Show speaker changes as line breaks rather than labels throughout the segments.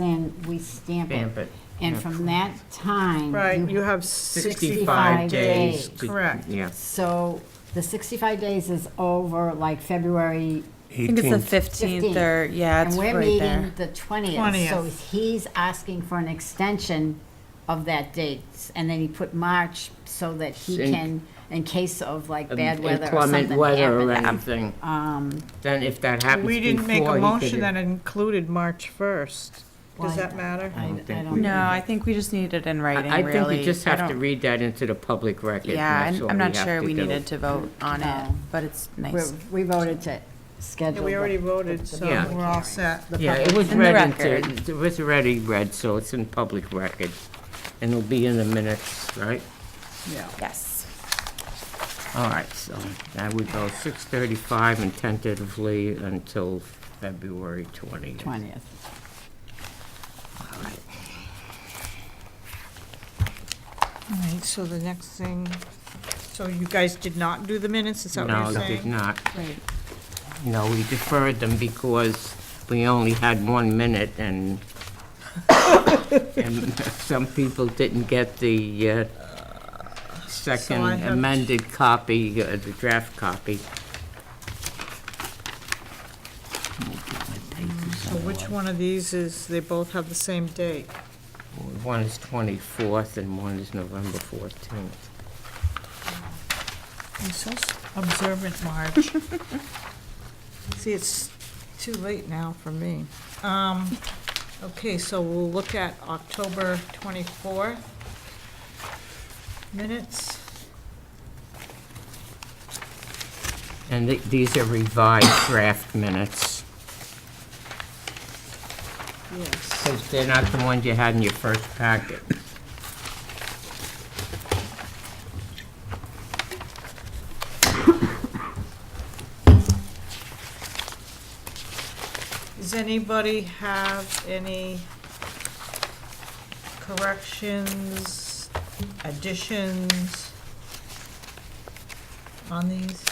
then we stamp
Stamp
it.
it.
And from that time.
Right, you have
65
65 days.
days.
to-
Correct.
Yeah.
So the 65 days is over like February,
I think it's the
18th.
15th
15th.
or, yeah,
and
it's
we're
right
meeting
there.
the 20th.
20th.
So he's asking for an extension of that date. And then he put March so that he
In-
can, in case of like bad weather or
Inclement
something
weather or
happening.
anything.
Um,
Then if that happens before,
We
he
didn't make a
could-
motion that included March 1st.
Why
Does that matter?
I I
don't think
don't.
we-
No, I think we just need it in
I-
writing,
I
really.
think we just
I
have to
don't-
read that into the public record. and
Yeah,
that's
and
all
I'm not
have
sure
to
we
do.
needed to vote on it,
No.
but it's nice.
we're- We voted to
Yeah,
schedule.
We
the-
already voted, so
Yeah.
we're all set.
the
Yeah, it
public
was
In the
read into,
record.
it was already read, so it's in public record. And it'll be in the minutes, right?
Yes.
All right, so that would go 6:35 and tentatively until February 20th.
20th.
All right, so the next thing, so you guys did not do the minutes, is that what
No,
you're
it did
saying?
not.
Right.
No, we deferred them because we only had one minute and, and some people didn't get the uh, second
have to-
amended copy, uh, the draft copy.
So which one of these is, they both have the same date?
One is 24th and one is November 14th.
I'm so s- observant, Marge. See, it's too late now for me. Um, Okay, so we'll look at October 24th minutes.
And th- these are revised draft minutes,
Yes.
because they're not the ones you had in your first packet.
Does anybody have any corrections, additions on these?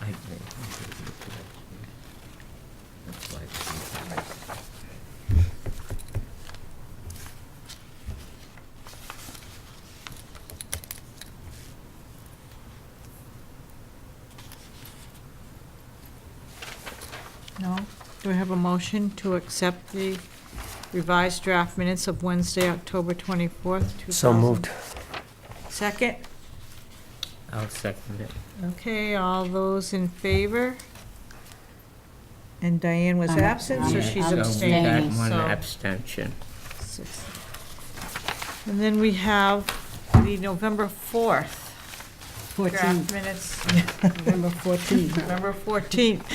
I agree.
No? Do I have a motion to accept the revised draft minutes of Wednesday, October 24th, 2000?
So moved.
Second?
I'll second it.
Okay, all those in favor? And Diane was
I'm-
absent, so
I'm-
she's
Yeah,
I'm
we got
abstaining,
One
so.
abstention.
six. And then we have the November 4th
14th,
draft minutes,
November 14th.
November 14th,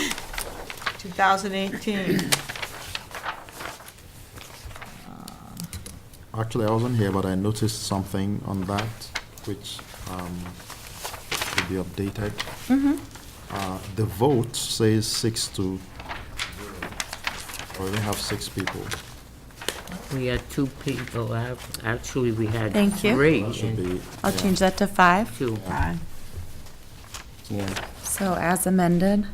2018.
Actually, I wasn't here, but I noticed something on that which um, should be updated.
Mm-hmm.
Uh, The vote says six to, we only have six people.
We had two people out, actually, we had
Thank you.
three.
That should
and
be,
I'll change that to five,
Two,
Five.
yeah.
so as amended.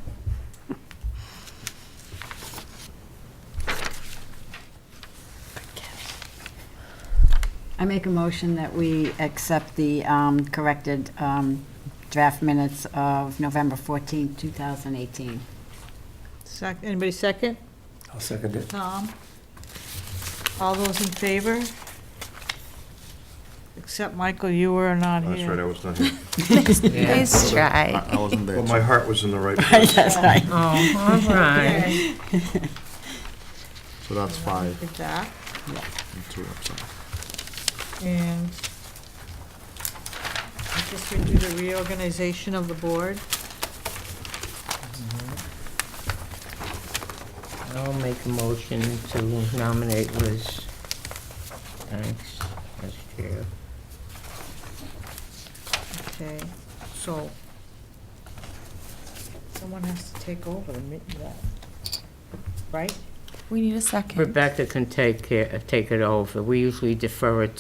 I make a motion that we accept the um, corrected um, draft minutes of November 14, 2018.
Sec, anybody second?
I'll second it.
Tom? All those in favor? Except, Michael, you were not
That's right, I
here.
was not here.
Yeah.
Nice
I
try.
I wasn't there.
Well,
too.
my heart was in the right place.
Oh, all right.
Okay,
So that's five
did that,
and two absent.
and I guess we do the reorganization of the board.
I'll make a motion to nominate Liz Banks as chair.
Okay, so someone has to take over the, mi- that, right?
We need a second.
Rebecca can take, care- take it over. We usually defer it